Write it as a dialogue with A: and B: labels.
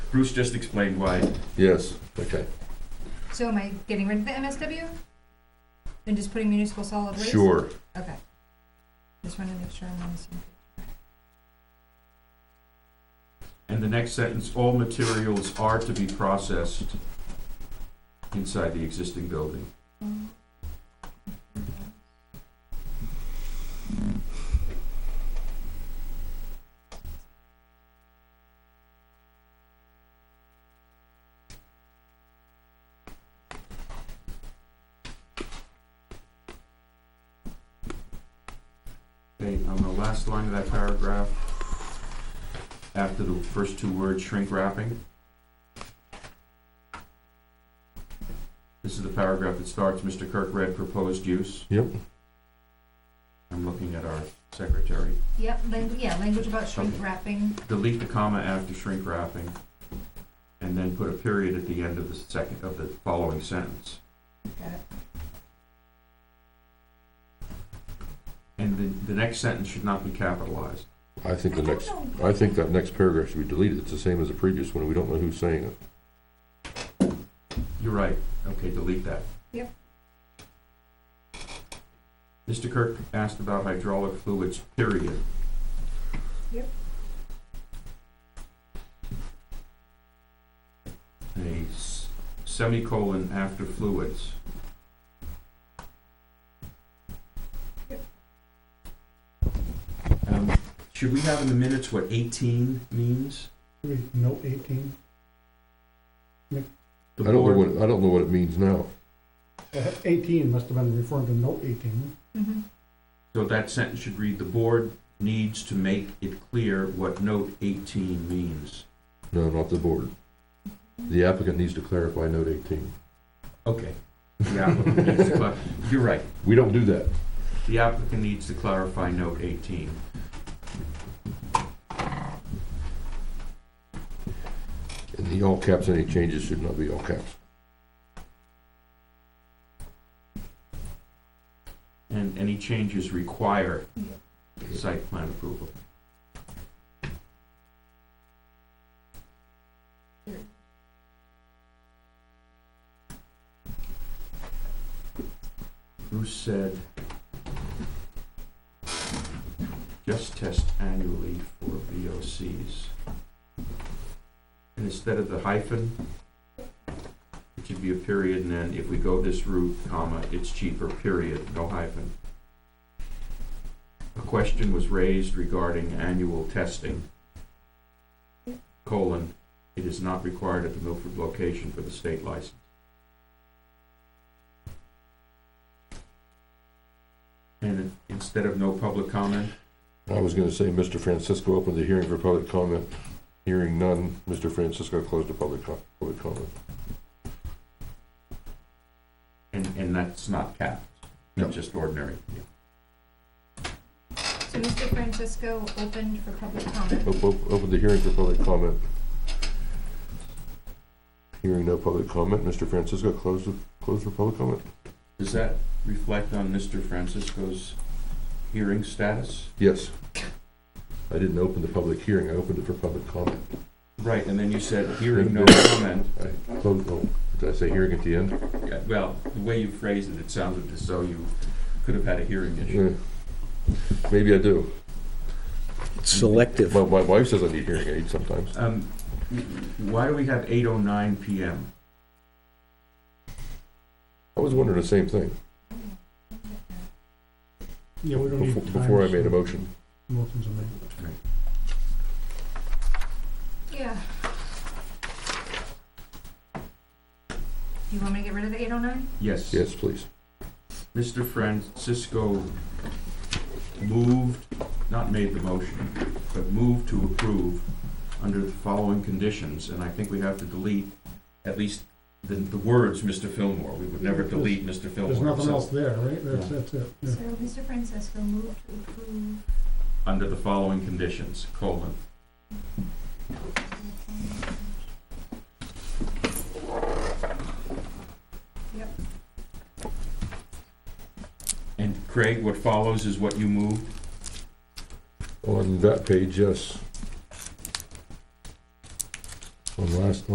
A: Bruce just explained why.
B: Yes, okay,
C: So am I getting rid of the MSW? And just putting municipal solid waste?
B: sure.
C: Okay. Just wanted to make sure I'm on the same.
A: And the next sentence, all materials are to be processed inside the existing building. Okay, on the last line of that paragraph, after the first two words shrink wrapping. This is the paragraph that starts, Mr. Kirk read proposed use.
B: Yep.
A: I'm looking at our secretary.
C: Yep, lang- yeah, language about shrink
A: Okay.
C: wrapping.
A: Delete the comma after shrink wrapping, and then put a period at the end of the second, of the following sentence.
C: Got it.
A: And the, the next sentence should not be capitalized.
B: I think the
C: I don't
B: next,
C: know.
B: I think that next paragraph should be deleted. It's the same as the previous one. We don't know who's saying it.
A: You're right. Okay, delete that.
C: Yep.
A: Mr. Kirk asked about hydraulic fluids, period.
C: Yep.
A: A s- semicolon after fluids.
C: Yep.
A: Um, Should we have in the minutes what eighteen means?
D: Wait, No, eighteen?
A: The
B: I don't know
A: board-
B: what, I don't know what it means now.
D: Uh, Eighteen must have been referring to note eighteen.
C: Mhm.
A: So that sentence should read, "The board needs to make it clear what note 18 means."
B: No, not the board. The applicant needs to clarify note eighteen.
A: Okay. The applicant needs to clar- You're right.
B: We don't do that.
A: The applicant needs to clarify note 18.
B: And the all caps, any changes should not be all caps.
A: And any changes require site plan approval. Bruce said, just test annually for VOCs. And instead of the hyphen, it should be a period, and then if we go this route, comma, it's cheaper, period, no hyphen. A question was raised regarding annual testing. Colon, it is not required at the Milford location for the state license. And instead of no public comment,
B: I was gonna say, Mr. Francisco opened the hearing for public comment. Hearing none, Mr. Francisco closed the public co- public comment.
A: and, and that's not capped,
B: No.
A: it's just ordinary.
C: So Mr. Francisco opened for public comment.
B: Op- op- Open the hearing for public comment. Hearing no public comment, Mr. Francisco closed, the- closed for public comment?
A: Does that reflect on Mr. Francisco's hearing status?
B: Yes. I didn't open the public hearing, I opened it for public comment.
A: Right, and then you said, hearing no
B: no
A: comment.
B: I closed, oh, did I say hearing at the end?
A: Yeah, well, the way you phrased it, it sounded as though you could have had a hearing issue.
B: Yeah. Maybe I do.
E: Selective.
B: My, my wife says I need hearing aids sometimes.
A: Um, why do we have eight oh nine PM?
B: I was wondering the same thing
D: Yeah, we don't need
B: before,
D: time.
B: before I made a motion.
D: Motion's amended.
C: Yeah. You want me to get rid of the eight oh nine?
A: Yes.
B: Yes, please.
A: Mr. Francisco moved, not made the motion, but moved to approve under the following conditions, and I think we have to delete at least the, the words, Mr. Fillmore. We would never delete Mr. Fillmore.
D: There's nothing
A: So,
D: else there, right? That's,
A: Yeah.
D: that's it.
C: So
D: yeah.
C: Mr. Francisco moved to approve.
A: Under the following conditions, colon. And Craig, what follows is what you moved?
B: On that page, yes. on last